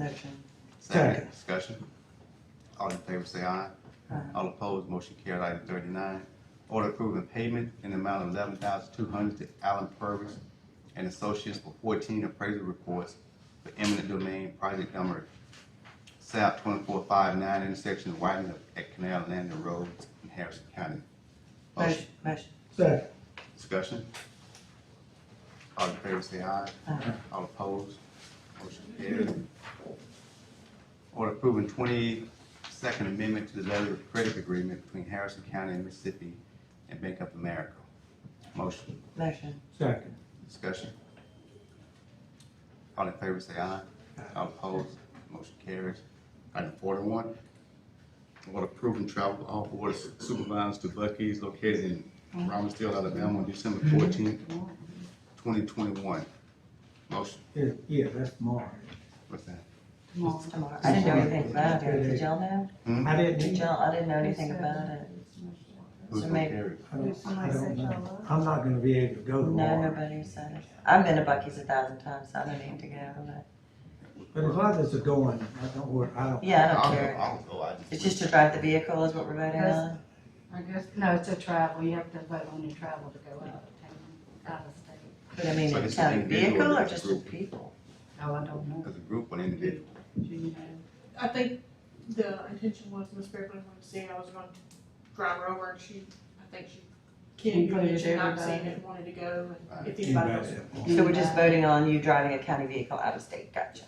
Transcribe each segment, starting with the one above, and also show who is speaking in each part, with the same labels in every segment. Speaker 1: Motion.
Speaker 2: Second.
Speaker 3: Discussion. All in favor say aye.
Speaker 1: Aye.
Speaker 3: All opposed, motion carried. Item thirty-nine, order approving payment in the amount of eleven thousand two hundred to Allen Purvis and Associates for fourteen appraisal reports for eminent domain project number South twenty-four five nine intersection widening of at Canal Landing Road in Harrison County.
Speaker 1: Motion, motion.
Speaker 2: Second.
Speaker 3: Discussion? All in favor say aye.
Speaker 1: Aye.
Speaker 3: All opposed? Motion carried. Order approving twenty-second amendment to the letter of credit agreement between Harrison County and Mississippi and Bank of America. Motion,
Speaker 1: Motion.
Speaker 2: Second.
Speaker 3: discussion? All in favor say aye. All opposed? Motion carries. Item forty-one. Order approving travel all board supervisors to Bucky's located in Robbinsdale, Alabama on December fourteenth, twenty twenty-one. Motion,
Speaker 2: Yeah, yeah, that's tomorrow.
Speaker 3: what's that?
Speaker 1: It's tomorrow. I didn't know anything about it. Did y'all know?
Speaker 3: Hmm?
Speaker 2: I didn't
Speaker 1: Did
Speaker 2: either.
Speaker 1: y'all, I didn't know anything about it.
Speaker 3: Who's
Speaker 1: So
Speaker 3: gonna
Speaker 1: maybe-
Speaker 3: carry it?
Speaker 2: I don't, I
Speaker 4: Somebody
Speaker 2: don't
Speaker 4: said y'all
Speaker 2: know.
Speaker 4: love.
Speaker 2: I'm not gonna be able to go
Speaker 1: No,
Speaker 2: tomorrow.
Speaker 1: nobody said it. I've been to Bucky's a thousand times, so I don't need to go, but,
Speaker 2: But as long as it's going, I don't worry, I don't.
Speaker 1: yeah, I
Speaker 3: I'll
Speaker 1: don't
Speaker 3: go,
Speaker 1: care.
Speaker 3: I'll go, I just.
Speaker 1: It's just to drive the vehicle is what we're voting on.
Speaker 5: I guess, no, it's a travel, you have to vote on your travel to go out of town, out of state.
Speaker 1: But I mean,
Speaker 3: So
Speaker 1: it's
Speaker 3: it's an
Speaker 1: not a
Speaker 3: individual
Speaker 1: vehicle
Speaker 3: or
Speaker 1: or
Speaker 3: it's a
Speaker 1: just a
Speaker 3: group?
Speaker 1: people?
Speaker 5: Oh, I don't know.
Speaker 3: As a group or individual?
Speaker 5: Do you know?
Speaker 4: I think the intention was Miss Strickland would see, I was going to drive her over and she, I think she can't do it, she not seen it, wanted to go and if anybody else.
Speaker 1: So we're just voting on you driving a county vehicle out of state, gotcha.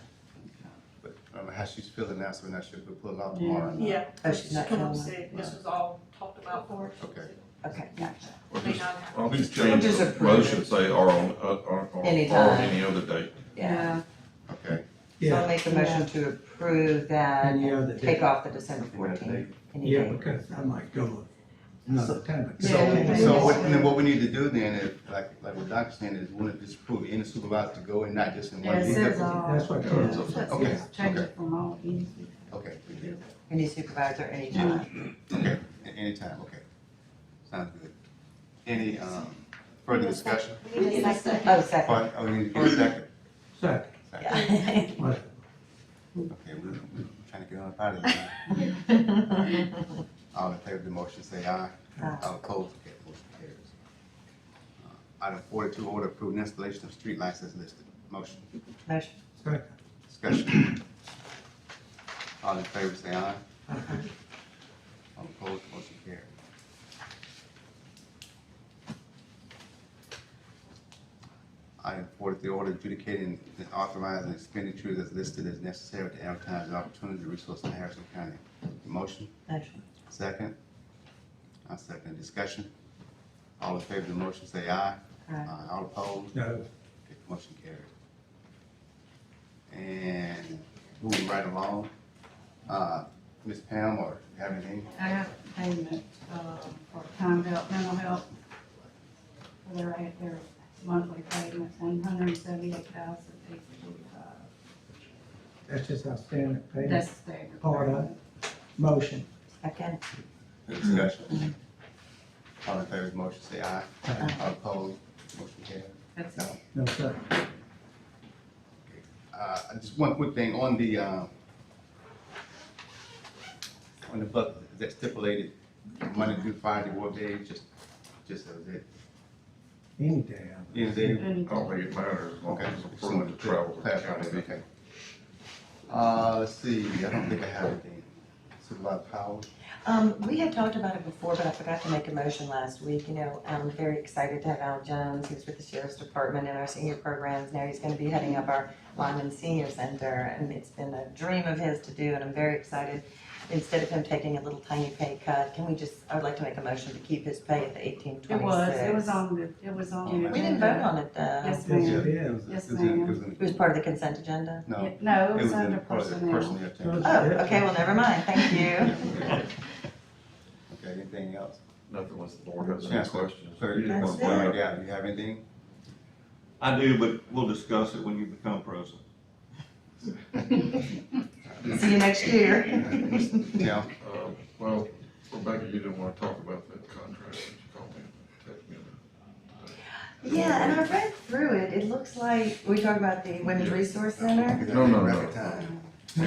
Speaker 3: But I don't know how she's feeling now, so we're not sure if we pull it off
Speaker 5: Yeah.
Speaker 3: tomorrow. or not.
Speaker 4: Yeah,
Speaker 1: Oh, she's
Speaker 4: she's
Speaker 1: not
Speaker 4: come up
Speaker 1: coming.
Speaker 4: and said, this was all talked about for her.
Speaker 3: Okay.
Speaker 1: Okay, gotcha.
Speaker 6: Or
Speaker 4: May
Speaker 6: just,
Speaker 4: not happen.
Speaker 6: I'll just change
Speaker 1: Just
Speaker 6: the
Speaker 1: approve it.
Speaker 6: motion, say, or on, uh, or, or, or
Speaker 1: Anytime.
Speaker 6: any other date.
Speaker 1: Yeah.
Speaker 3: Okay.
Speaker 1: So I'll
Speaker 2: Yeah,
Speaker 1: make a motion to approve that
Speaker 2: Any other
Speaker 1: and take
Speaker 2: day.
Speaker 1: off the December fourteenth.
Speaker 2: yeah, because I might go another time.
Speaker 3: So,
Speaker 5: Yeah.
Speaker 3: so what, then what we need to do then, if, like, like what Doc's saying is, we want to disapprove any supervisor to go and not just in one
Speaker 5: Yeah, it says
Speaker 3: vehicle?
Speaker 5: all.
Speaker 2: That's what, yeah,
Speaker 5: it says
Speaker 3: Okay,
Speaker 5: Change
Speaker 3: okay.
Speaker 5: it from all easy.
Speaker 3: Okay, we do.
Speaker 1: Any supervisor, anytime.
Speaker 3: Okay, a- anytime, okay. Sounds good. Any, um, further discussion?
Speaker 7: We need a second.
Speaker 1: Oh, second,
Speaker 3: Pardon, oh, we need to get a second.
Speaker 2: second,
Speaker 3: Second.
Speaker 1: yeah.
Speaker 2: what,
Speaker 3: Okay, we, we trying to get on out of here. All in favor of the motion, say aye.
Speaker 1: Aye.
Speaker 3: All opposed, okay, motion carries. Uh, Item forty-two, order approving installation of street lights as listed. Motion,
Speaker 1: Motion,
Speaker 2: second,
Speaker 3: discussion. All in favor, say aye.
Speaker 2: Aye.
Speaker 3: All opposed, motion carries. Item forty-three, order adjudicating and authorizing expenditures as listed as necessary to advertise the opportunity resource in Harrison County. Motion?
Speaker 1: motion,
Speaker 3: Second. I second discussion. All in favor of the motion, say aye.
Speaker 1: Aye.
Speaker 3: All opposed,
Speaker 2: no,
Speaker 3: Okay, motion carried. And moving right along, uh, Ms. Pam, or have anything?
Speaker 5: I have payment, uh, for time out mental health. For their, their monthly payment, one hundred and seventy-eight thousand eight forty-five.
Speaker 2: that's just outstanding pay.
Speaker 5: That's standard.
Speaker 2: Part of it. Motion,
Speaker 1: second,
Speaker 3: Discussion. All in favor of the motion, say aye.
Speaker 2: Aye.
Speaker 3: All opposed, motion carried.
Speaker 5: That's
Speaker 3: No.
Speaker 2: no, second,
Speaker 3: Uh, just one quick thing on the, uh, on the buck, is that stipulated Monday through Friday, what day, just, just as it,
Speaker 2: any day. I would-
Speaker 3: is it?
Speaker 5: Any-
Speaker 6: I don't think it matters, as long
Speaker 3: Okay.
Speaker 6: as it's approved to travel to the
Speaker 3: Clarify
Speaker 6: county.
Speaker 3: that, okay. Uh, let's see, I don't think I have anything. Supervisor Powell,
Speaker 1: Um, we had talked about it before, but I forgot to make a motion last week, you know, I'm very excited to have Al Jones, who's with the sheriff's department and our senior programs, now he's gonna be heading up our Lyman Senior Center, and it's been a dream of his to do, and I'm very excited. Instead of him taking a little tiny pay cut, can we just, I would like to make a motion to keep his pay at the eighteen
Speaker 5: It
Speaker 1: twenty-six.
Speaker 5: was, it was on the, it was on the.
Speaker 1: We didn't vote on it though,
Speaker 5: Yes,
Speaker 2: Yes,
Speaker 5: ma'am.
Speaker 2: it is.
Speaker 5: Yes,
Speaker 3: It was in- it was
Speaker 1: it was
Speaker 3: in-
Speaker 1: part of the consent agenda.
Speaker 3: No, it
Speaker 5: No, it
Speaker 3: was
Speaker 5: was
Speaker 3: in
Speaker 5: under
Speaker 3: part of the
Speaker 5: personnel.
Speaker 3: personnel
Speaker 2: It was-
Speaker 3: change.
Speaker 1: Oh, okay, well, never mind, thank you.
Speaker 3: Okay, anything else?
Speaker 6: Nothing unless the board has any
Speaker 3: Chancellor,
Speaker 6: questions.
Speaker 3: Clerk, you
Speaker 1: That's
Speaker 3: want to bring it down, you have anything?
Speaker 8: I do, but we'll discuss it when you become president.
Speaker 1: See you next year.
Speaker 3: No,
Speaker 6: Uh, well, Rebecca, you didn't wanna talk about that contract, you called me, text me.
Speaker 1: Yeah, and I read through it, it looks like, we talk about the Women's Resource Center.
Speaker 6: No, no, no.
Speaker 3: Record time.